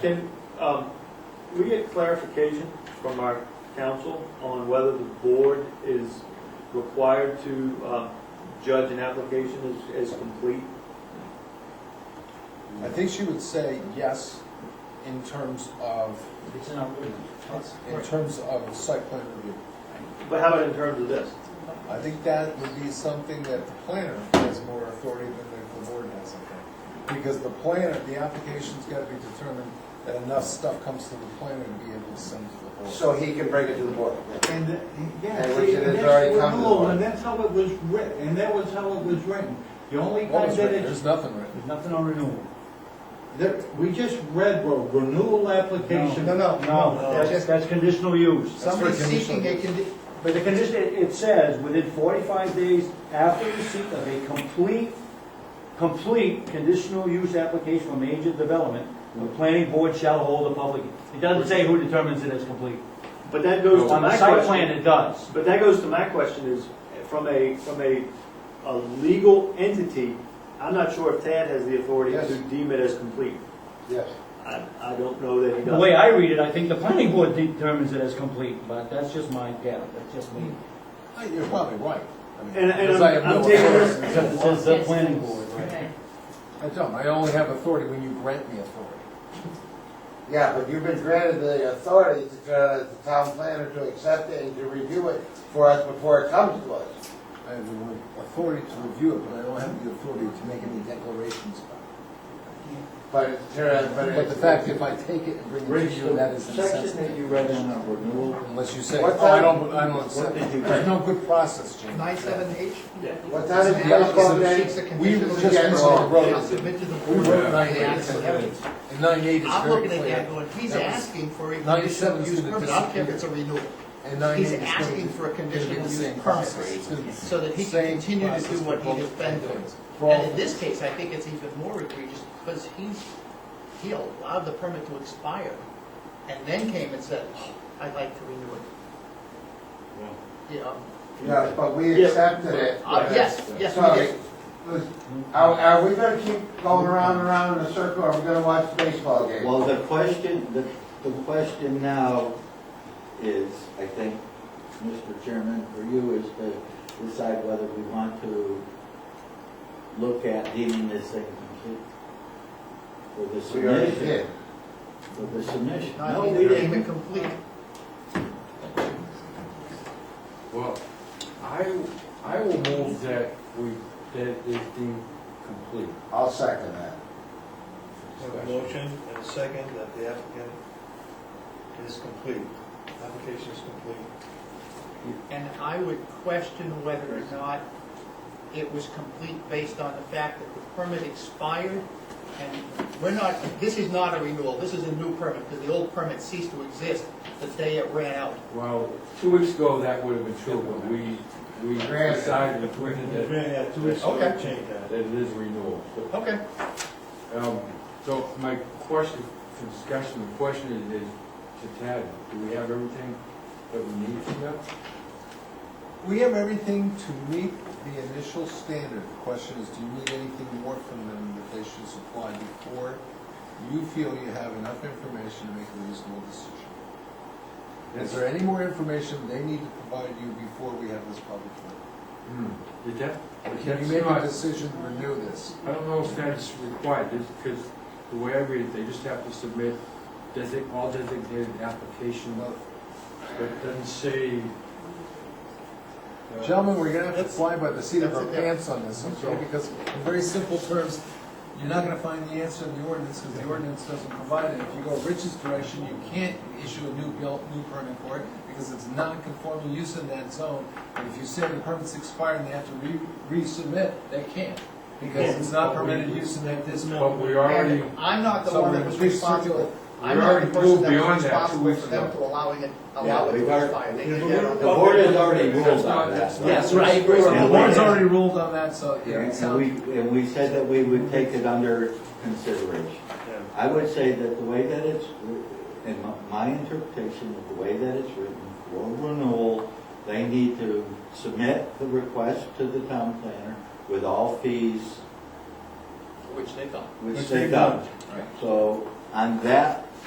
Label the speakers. Speaker 1: Can, um, we get clarification from our council on whether the board is required to, uh, judge an application as, as complete?
Speaker 2: I think she would say yes in terms of,
Speaker 3: It's in our ordinance.
Speaker 2: in terms of site plan review.
Speaker 1: But how about in terms of this?
Speaker 2: I think that would be something that the planner has more authority than the- the board has, I think. Because the planner, the application's gotta be determined that enough stuff comes to the planner to be able to send to the board.
Speaker 4: So he can bring it to the board.
Speaker 3: And, uh, yeah,
Speaker 4: And
Speaker 3: see,
Speaker 4: Richard
Speaker 3: and
Speaker 4: has
Speaker 3: that's,
Speaker 4: already
Speaker 3: what-
Speaker 4: come to
Speaker 3: no,
Speaker 4: the-
Speaker 3: and that's how it was writ, and that was how it was written. The only
Speaker 2: What
Speaker 3: time
Speaker 2: was
Speaker 3: that
Speaker 2: written?
Speaker 3: it's,
Speaker 2: There's nothing written.
Speaker 3: there's nothing on renewal. There, we just read, well, renewal application.
Speaker 4: No, no, no, no,
Speaker 3: That's,
Speaker 4: just-
Speaker 3: that's conditional use.
Speaker 2: That's for
Speaker 4: Somebody
Speaker 2: conditional
Speaker 4: seeking a condi,
Speaker 3: But the condition, it it says, within forty-five days after receipt of a complete, complete conditional use application for major development, the planning board shall hold a public, it doesn't say who determines it as complete.
Speaker 1: But that goes to
Speaker 3: On
Speaker 1: my
Speaker 3: the site plan,
Speaker 1: question.
Speaker 3: it does.
Speaker 1: But that goes to my question is, from a, from a, a legal entity, I'm not sure if Tad has the authority
Speaker 4: Yes.
Speaker 1: to deem it as complete.
Speaker 4: yes.
Speaker 1: I, I don't know that he
Speaker 5: The
Speaker 1: does.
Speaker 5: way I read it, I think the planning board determines it as complete, but that's just my, yeah, that's just me.
Speaker 2: Uh, You're probably right. I mean,
Speaker 1: And- and
Speaker 2: because I
Speaker 1: I'm-
Speaker 2: have no
Speaker 1: I'm taking
Speaker 2: authority.
Speaker 1: this-
Speaker 5: Except it says the planning board, right?
Speaker 6: Okay.
Speaker 2: I don't, I only have authority when you grant me authority.
Speaker 4: Yeah, but you've been granted the authority to, try to- the town planner to accept it and to review it for us before it comes to us.
Speaker 2: I have the authority to review it, but I don't have the authority to make any declarations about it.
Speaker 4: But it's, but
Speaker 2: But
Speaker 4: it's.
Speaker 2: the fact, if I take it and bring it to you, that is insensitive.
Speaker 3: you read in on renewal
Speaker 2: Unless you say,
Speaker 4: What's
Speaker 2: oh, I
Speaker 4: that?
Speaker 2: don't, I don't accept it. There's no good process, Jim.
Speaker 7: Nine seven H?
Speaker 4: What time is the outcome
Speaker 7: Seeks a
Speaker 4: date?
Speaker 2: We
Speaker 7: conditional
Speaker 2: just
Speaker 7: use
Speaker 4: get
Speaker 2: recently
Speaker 4: along.
Speaker 7: shall
Speaker 2: wrote,
Speaker 7: submit to the
Speaker 2: we
Speaker 7: board.
Speaker 2: wrote
Speaker 7: of
Speaker 2: nine
Speaker 7: the
Speaker 2: eight,
Speaker 7: action evidence.
Speaker 2: and nine eight is
Speaker 7: I'm
Speaker 2: very
Speaker 7: looking at that
Speaker 2: clear.
Speaker 7: going, he's
Speaker 2: That was-
Speaker 7: asking for a
Speaker 2: 97
Speaker 7: conditional
Speaker 2: is
Speaker 7: use
Speaker 2: gonna
Speaker 7: permit, I don't care if it's a renewal.
Speaker 2: And nine eight
Speaker 7: He's
Speaker 2: is gonna
Speaker 7: asking
Speaker 2: be-
Speaker 7: for a
Speaker 2: gonna be the
Speaker 7: conditional use
Speaker 2: same
Speaker 7: permit.
Speaker 2: process. It's gonna be the
Speaker 7: So that he can
Speaker 2: same
Speaker 7: continue to do
Speaker 2: process
Speaker 7: what
Speaker 2: for
Speaker 7: he has
Speaker 2: both
Speaker 7: been
Speaker 2: things.
Speaker 7: doing. And in this case, I think it's even more egregious because he, he allowed the permit to expire and then came and said, "Oh, I'd like to renew it. You know,
Speaker 4: No, but we accepted it.
Speaker 7: uh, yes, yes,
Speaker 4: So,
Speaker 7: we did.
Speaker 4: was- Are, are we gonna keep going around and around in a circle, or are we gonna watch the baseball game?
Speaker 8: Well, the question, the, the question now is, I think, Mr. Chairman, for you is to decide whether we want to look at deeming this thing complete. For the
Speaker 4: We already did.
Speaker 8: submission, for the submission.
Speaker 7: Not
Speaker 8: No, we
Speaker 7: even deem it
Speaker 8: didn't.
Speaker 7: complete.
Speaker 9: Well, I, I will move that we, that it is deemed complete.
Speaker 4: I'll second that.
Speaker 10: Have a motion and a second that the applicant is complete, application is complete.
Speaker 7: And I would question whether or not it was complete based on the fact that the permit expired. And we're not, this is not a renewal, this is a new permit, because the old permit ceased to exist the day it ran out.
Speaker 9: Well, two weeks ago, that would have been true, but we, we
Speaker 4: Granted.
Speaker 9: decided between
Speaker 10: We've
Speaker 9: that,
Speaker 10: been at two weeks, so we
Speaker 7: Okay.
Speaker 10: change that.
Speaker 9: that it is renewal.
Speaker 7: Okay.
Speaker 9: Um, so my question, for discussion, the question is, is to Tad, do we have everything that we need from them?
Speaker 2: We have everything to meet the initial standard. The question is, do you need anything more from them that they should supply before you feel you have enough information to make a reasonable decision? Is there any more information they need to provide you before we have this public hearing?
Speaker 9: Hmm, Did that,
Speaker 2: Can you
Speaker 9: that's
Speaker 2: make a
Speaker 9: not-
Speaker 2: decision to renew this?
Speaker 9: I don't know if that's required, because the way I read it, they just have to submit design, all designated application,
Speaker 2: Well,
Speaker 9: but it doesn't say. uh,
Speaker 2: Gentlemen, we're gonna have to
Speaker 7: That's-
Speaker 2: fly by the seat of our
Speaker 7: that's it, yeah.
Speaker 2: pants on this, okay? Because in very simple terms, you're not gonna find the answer in the ordinance, because the ordinance doesn't provide it. If you go Rich's direction, you can't issue a new bill, new permit for it, because it's non-conforming use in that zone. And if you say the permit's expired and they have to re- resubmit, they can't, because it's not permitted use in that district.
Speaker 9: But we already,
Speaker 7: And I'm not the
Speaker 2: So
Speaker 7: one
Speaker 2: we're
Speaker 7: that was
Speaker 2: gonna fix it.
Speaker 7: responsible, I'm
Speaker 9: We
Speaker 7: not
Speaker 9: already
Speaker 7: the person
Speaker 9: moved
Speaker 7: that
Speaker 9: beyond
Speaker 7: was
Speaker 9: that two
Speaker 7: responsible
Speaker 9: weeks
Speaker 7: for them
Speaker 9: ago.
Speaker 7: to allowing it,
Speaker 8: Yeah,
Speaker 7: allow it
Speaker 8: we've
Speaker 7: to
Speaker 8: already-
Speaker 7: expire.
Speaker 10: we've
Speaker 7: They did that on
Speaker 8: The
Speaker 7: their own.
Speaker 8: board has already
Speaker 9: That's
Speaker 8: ruled
Speaker 9: not-
Speaker 8: on
Speaker 9: that's
Speaker 8: that.
Speaker 9: not-
Speaker 2: Yes, right. The board's already ruled on that, so, yeah, it
Speaker 8: And
Speaker 2: sounds-
Speaker 8: we, and we said that we would take it under consideration.
Speaker 10: Yeah.
Speaker 8: I would say that the way that it's, in my- my interpretation of the way that it's written, for renewal, they need to submit the request to the town planner with all fees,
Speaker 7: Which they don't.
Speaker 8: which
Speaker 10: Which
Speaker 8: they
Speaker 10: they've
Speaker 8: don't. So on that